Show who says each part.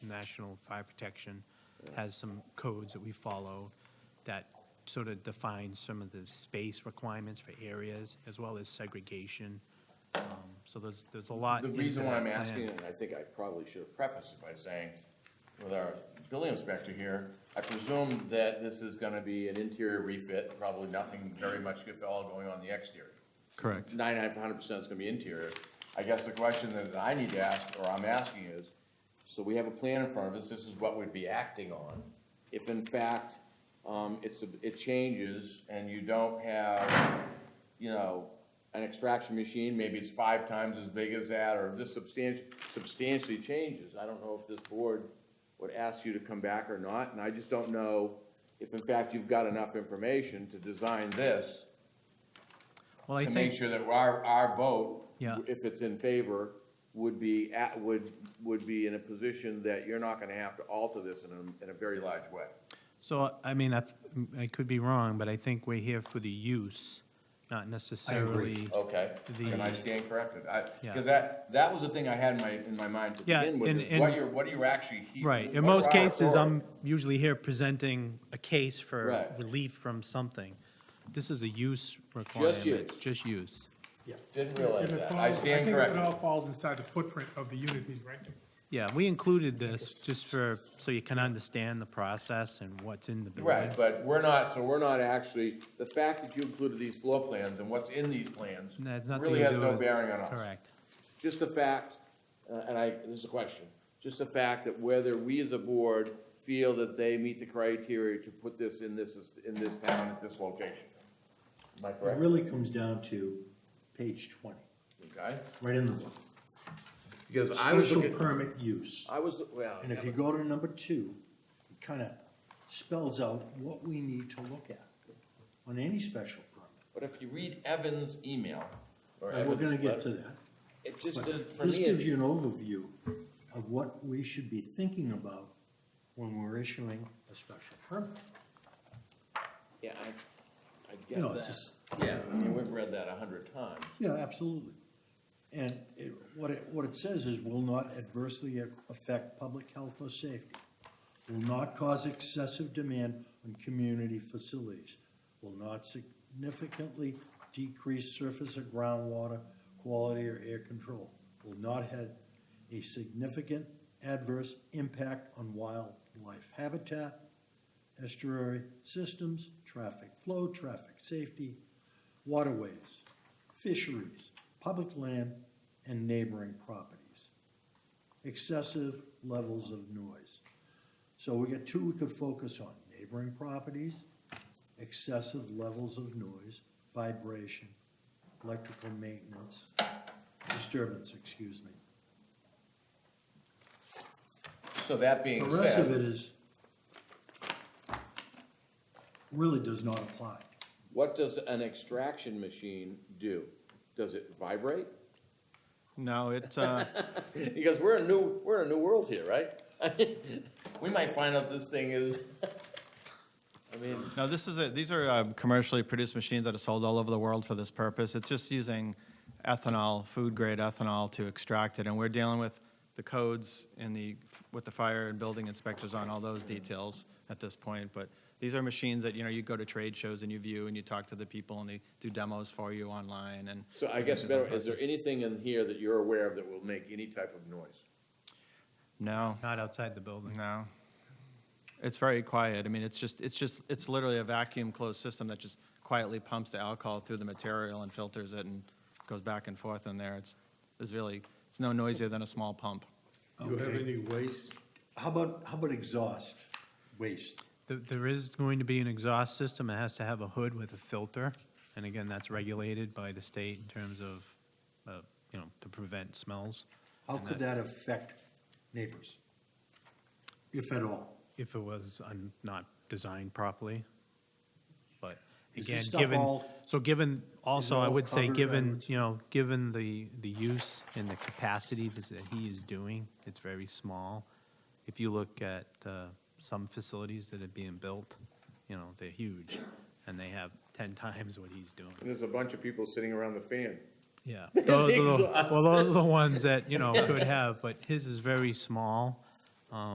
Speaker 1: National Fire Protection has some codes that we follow that sort of define some of the space requirements for areas, as well as segregation. Um, So there's, there's a lot.
Speaker 2: The
Speaker 1: into
Speaker 2: reason why
Speaker 1: that
Speaker 2: I'm
Speaker 1: plan.
Speaker 2: asking, and I think I probably should have prefaced it by saying, with our building inspector here, I presume that this is gonna be an interior refit, probably nothing very much if at all going on the exterior.
Speaker 3: Correct.
Speaker 2: Ninety-nine, hundred percent is gonna be interior. I guess the question that I need to ask, or I'm asking is, so we have a plan in front of us, this is what we'd be acting on. If in fact, um, it's, a- it changes and you don't have, you know, an extraction machine, maybe it's five times as big as that, or this substantially, substantially changes. I don't know if this board would ask you to come back or not, and I just don't know if in fact you've got enough information to design this
Speaker 1: Well, I
Speaker 2: to make
Speaker 1: think,
Speaker 2: sure that our, our vote,
Speaker 1: Yeah.
Speaker 2: if it's in favor, would be at, would, would be in a position that you're not gonna have to alter this in a, in a very large way.
Speaker 1: so, I mean, I, I could be wrong, but I think we're here for the use, not necessarily.
Speaker 2: Okay,
Speaker 1: The-
Speaker 2: and I stand corrected, I,
Speaker 1: Yeah.
Speaker 2: because that, that was the thing I had in my, in my mind to
Speaker 1: Yeah,
Speaker 2: begin with,
Speaker 1: and-
Speaker 2: is what
Speaker 1: and-
Speaker 2: you're, what are you actually?
Speaker 1: Right, in
Speaker 2: what are
Speaker 1: most
Speaker 2: our
Speaker 1: cases, I'm
Speaker 2: authorities?
Speaker 1: usually here presenting a case for
Speaker 2: Right.
Speaker 1: relief from something. This is a use
Speaker 2: use.
Speaker 1: requirement, just use.
Speaker 2: Didn't
Speaker 4: And
Speaker 2: realize
Speaker 4: it
Speaker 2: that,
Speaker 4: falls-
Speaker 2: I stand
Speaker 4: think It all
Speaker 2: corrected.
Speaker 4: falls inside the footprint of the unit he's renting.
Speaker 1: Yeah, we included this just for, so you can understand the process and what's in the building.
Speaker 2: Right, but we're not, so we're not actually, the fact that you included these floor plans and what's in these plans
Speaker 1: That's nothing
Speaker 2: really
Speaker 1: to
Speaker 2: has
Speaker 1: do
Speaker 2: no
Speaker 1: with-
Speaker 2: bearing on us.
Speaker 1: Correct.
Speaker 2: just the fact, uh, and I, this is a question, just the fact that whether we as a board feel that they meet the criteria to put this in this, in this town at this location. Am I
Speaker 5: It
Speaker 2: correct?
Speaker 5: really comes down to page twenty,
Speaker 2: Okay?
Speaker 5: right in the book.
Speaker 2: Because I was
Speaker 5: Special
Speaker 2: looking,
Speaker 5: permit use.
Speaker 2: I was, well,
Speaker 5: And if you go to number two, it kind of spells out what we need to look at on any special permit.
Speaker 2: but if you read Evan's email, or
Speaker 5: And we're gonna
Speaker 2: Evan's
Speaker 5: get
Speaker 2: letter,
Speaker 5: to that.
Speaker 2: it just, did-
Speaker 5: But
Speaker 2: for
Speaker 5: this
Speaker 2: me,
Speaker 5: gives
Speaker 2: it-
Speaker 5: you an overview of what we should be thinking about when we're issuing a special permit.
Speaker 2: yeah, I, I
Speaker 5: You know,
Speaker 2: get
Speaker 5: it's
Speaker 2: that.
Speaker 5: just-
Speaker 2: Yeah, I mean, we've read that a hundred times.
Speaker 5: Yeah, absolutely. And it, what it, what it says is will not adversely affect public health or safety, will not cause excessive demand on community facilities, will not significantly decrease surface or groundwater quality or air control, will not have a significant adverse impact on wildlife habitat, estuary systems, traffic flow, traffic safety, waterways, fisheries, public land, and neighboring properties. Excessive levels of noise. So we got two we could focus on, neighboring properties, excessive levels of noise, vibration, electrical maintenance, disturbance, excuse me.
Speaker 2: So that being
Speaker 5: The
Speaker 2: said.
Speaker 5: rest of it is, really does not apply.
Speaker 2: What does an extraction machine do? Does it vibrate?
Speaker 3: No, it, uh,
Speaker 2: Because we're a new, we're in a new world here, right? We might find out this thing is, I mean,
Speaker 3: no, this is, a- these are uh, commercially produced machines that are sold all over the world for this purpose. It's just using ethanol, food-grade ethanol to extract it, and we're dealing with the codes and the, with the fire and building inspectors on all those details at this point, but these are machines that, you know, you go to trade shows and you view and you talk to the people and they do demos for you online and.
Speaker 2: so I guess better, is there anything in here that you're aware of that will make any type of noise?
Speaker 3: No,
Speaker 1: Not outside the building.
Speaker 3: no. It's very quiet. I mean, it's just, it's just, it's literally a vacuum closed system that just quietly pumps the alcohol through the material and filters it and goes back and forth in there. It's, it's really, it's no noisier than a small pump.
Speaker 6: Do you have any waste?
Speaker 5: How about, how about exhaust, waste?
Speaker 1: There, there is going to be an exhaust system. It has to have a hood with a filter. And again, that's regulated by the state in terms of, uh, you know, to prevent smells.
Speaker 5: How could that affect neighbors? If at all?
Speaker 1: if it was un- not designed properly. But
Speaker 5: Is this
Speaker 1: again,
Speaker 5: stuff
Speaker 1: given,
Speaker 5: all-
Speaker 1: so given, also, I
Speaker 5: all
Speaker 1: would say,
Speaker 5: covered
Speaker 1: given,
Speaker 5: under-
Speaker 1: you know, given the, the use and the capacity that that he is doing, it's very small. If you look at uh, some facilities that are being built, you know, they're huge, and they have 10 times what he's doing.
Speaker 2: And there's a bunch of people sitting around the fan.
Speaker 1: Yeah, those are the, well, those are the ones that, you know, could have, but his is very small.